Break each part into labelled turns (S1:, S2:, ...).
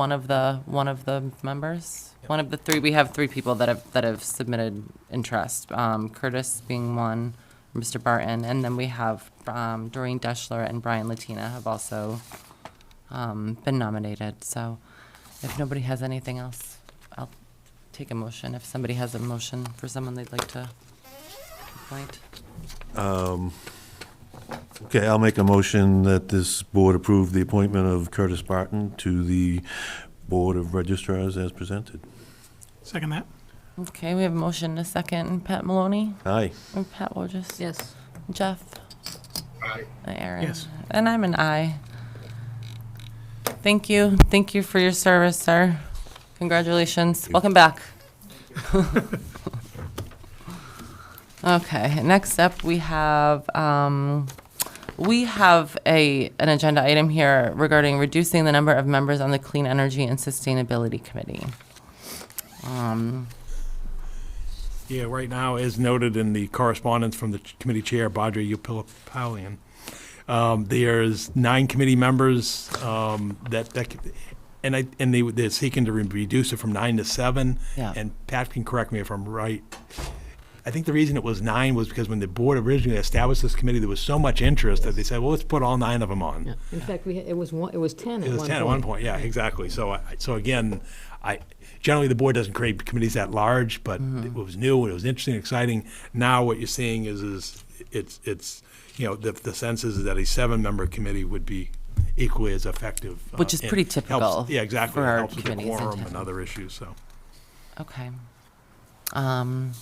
S1: one of the, one of the members?
S2: Yep.
S1: One of the three, we have three people that have, that have submitted interest, um, Curtis being one, Mr. Barton, and then we have, um, Doreen Deschler and Brian Latina have also, um, been nominated, so if nobody has anything else, I'll take a motion, if somebody has a motion for someone they'd like to appoint.
S3: Okay, I'll make a motion that this board approve the appointment of Curtis Barton to the Board of registrars as presented.
S4: Second that.
S1: Okay, we have a motion, and a second, Pat Maloney,
S3: Aye.
S1: or Pat Wojcik?
S5: Yes.
S1: Jeff? Aye. Aaron?
S4: Yes.
S1: And I'm an aye. Thank you. Thank you for your service, sir. Congratulations. Welcome back. Okay, next up, we have, um, we have a, an agenda item here regarding reducing the number of members on the Clean Energy and Sustainability Committee. Um,
S2: Yeah, right now, as noted in the correspondence from the ch- committee chair, Badri Upilipalian, um, there's nine committee members um, that, that could- and I, and they, they're seeking to re- reduce it from nine to seven.
S1: Yeah.
S2: And Pat can correct me if I'm right. I think the reason it was nine was because when the board originally established this committee, there was so much interest that they said, well, let's put all nine of them on.
S5: Yeah. In fact, we, it was one, it was 10 at one
S2: It
S5: point.
S2: was 10 at one point, yeah, exactly. So, I- so again, I, generally, the board doesn't create committees that large, but
S1: Mm-hmm.
S2: it was new, it was interesting, exciting. Now, what you're seeing is, is it's, it's, you know, the, the sense is that a seven-member committee would be equally as effective. uh,
S1: Which is
S2: and
S1: pretty
S2: helps-
S1: typical
S2: Yeah, exactly.
S1: for
S2: It
S1: our
S2: helps with the
S1: committees in
S2: quorum
S1: town.
S2: and other issues, so.
S1: Okay. Um,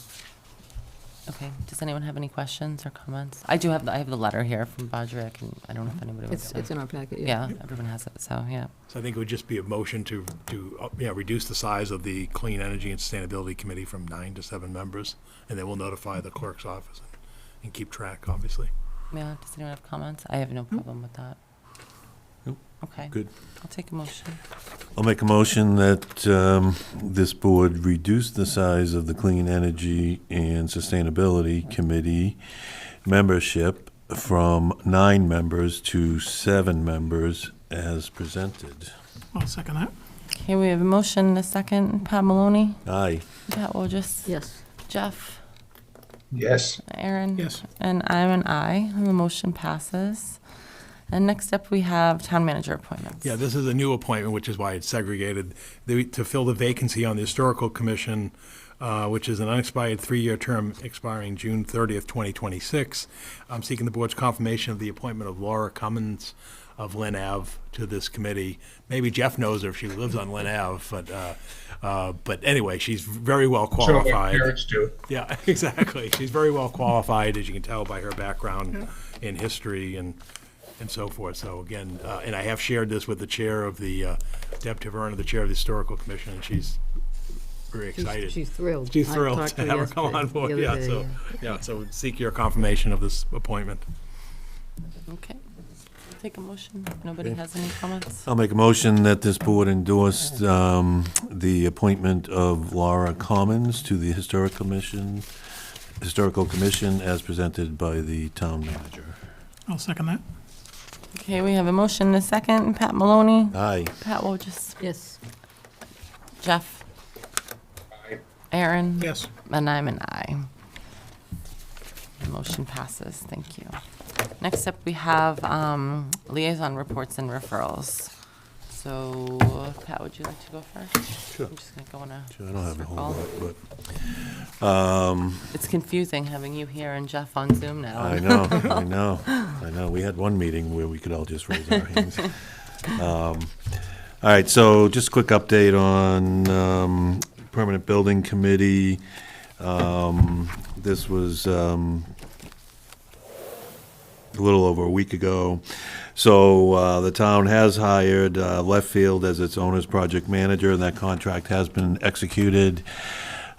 S1: okay, does anyone have any questions or comments? I do have, the I have the letter here from Badger, I can, I don't know if anybody
S5: Mm-hmm. It's,
S1: wants
S5: it's
S1: to.
S5: in our packet, yeah.
S1: Yeah, everyone has it, so, yeah.
S2: So I think it would just be a motion to, to, uh, yeah, reduce the size of the Clean Energy and Sustainability Committee from nine to seven members, and then we'll notify the clerk's office and keep track, obviously.
S1: Yeah, does anyone have comments? I have no problem with that.
S3: Nope.
S1: Okay.
S3: Good.
S1: I'll take a motion.
S3: I'll make a motion that um, this board reduce the size of the Clean Energy and Sustainability Committee membership from nine members to seven members as presented.
S4: I'll second that.
S1: Okay, we have a motion, and a second, Pat Maloney,
S3: Aye.
S1: Pat Wojcik,
S5: Yes.
S1: Jeff,
S6: Yes,
S1: Aaron.
S4: Yes.
S1: And I'm an aye, and the motion passes. And next up, we have town manager appointments.
S2: Yeah, this is a new appointment, which is why it's segregated, They- to fill the vacancy on the Historical Commission, uh, which is an unexpired three-year term expiring June 30th, 2026. I'm seeking the board's confirmation of the appointment of Laura Cummins of Lynn Ave to this committee. Maybe Jeff knows her if she lives on Lynn Ave, but, uh, uh, but anyway, she's very well
S6: so my
S2: qualified.
S6: parents do.
S2: Yeah, exactly. She's very well qualified, as you can tell by her background in history and, and so forth. So again, uh, and I have shared this with the chair of the, uh, Deb Taverna, the chair of the Historical Commission, and she's very
S5: She's-
S2: excited.
S5: She's thrilled.
S2: She's
S5: I
S2: thrilled
S5: talked
S2: to
S5: her
S2: have her come
S5: yesterday-
S2: on
S5: the
S2: board,
S5: other
S2: yeah,
S5: day,
S2: so, yeah, so seek your confirmation of this appointment.
S1: Okay, I'll take a motion. If Nobody has any comments?
S3: I'll make a motion that this board endorsed um, the appointment of Laura Commons to the Historic Commission, Historical Commission as presented by the town manager.
S4: I'll second that.
S1: Okay, we have a motion and a second. Pat Maloney,
S3: Aye.
S1: Pat Wojcik,
S5: Yes.
S1: Jeff,
S6: I-
S1: Aaron.
S4: Yes.
S1: And I'm an aye. The motion passes. Thank you. Next up, we have um, liaison reports and referrals. So Pat, would you like to go first?
S3: Sure.
S1: I'm just going to go in a
S3: Sure, I don't have a whole
S1: circle.
S3: lot, but, um,
S1: It's confusing having you here and Jeff on Zoom now.
S3: I know, I know, I know. We had one meeting where we could all just raise our hands. Um, All right, so just a quick update on, um, Permanent Building Committee. Um, this was, um, a little over a week ago. So uh, the town has hired uh, Left Field as its owner's project manager, and that contract has been executed.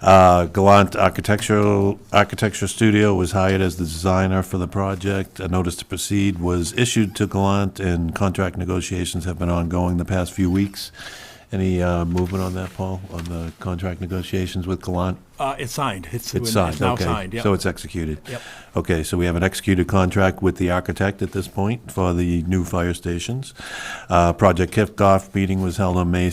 S3: Uh, Gallant Architectural, Architecture Studio was hired as the designer for the project. A notice to proceed was issued to Gallant, and contract negotiations have been ongoing the past few weeks. Any uh, movement on that, Paul, on the contract negotiations with Gallant?
S2: Uh, it's signed. It's,
S3: It's
S2: it's
S3: signed,
S2: now
S3: okay.
S2: signed, yeah.
S3: So it's executed?
S2: Yep.
S3: Okay, so we have an executed contract with the architect at this point for the new fire stations. Uh, Project kickoff meeting was held on May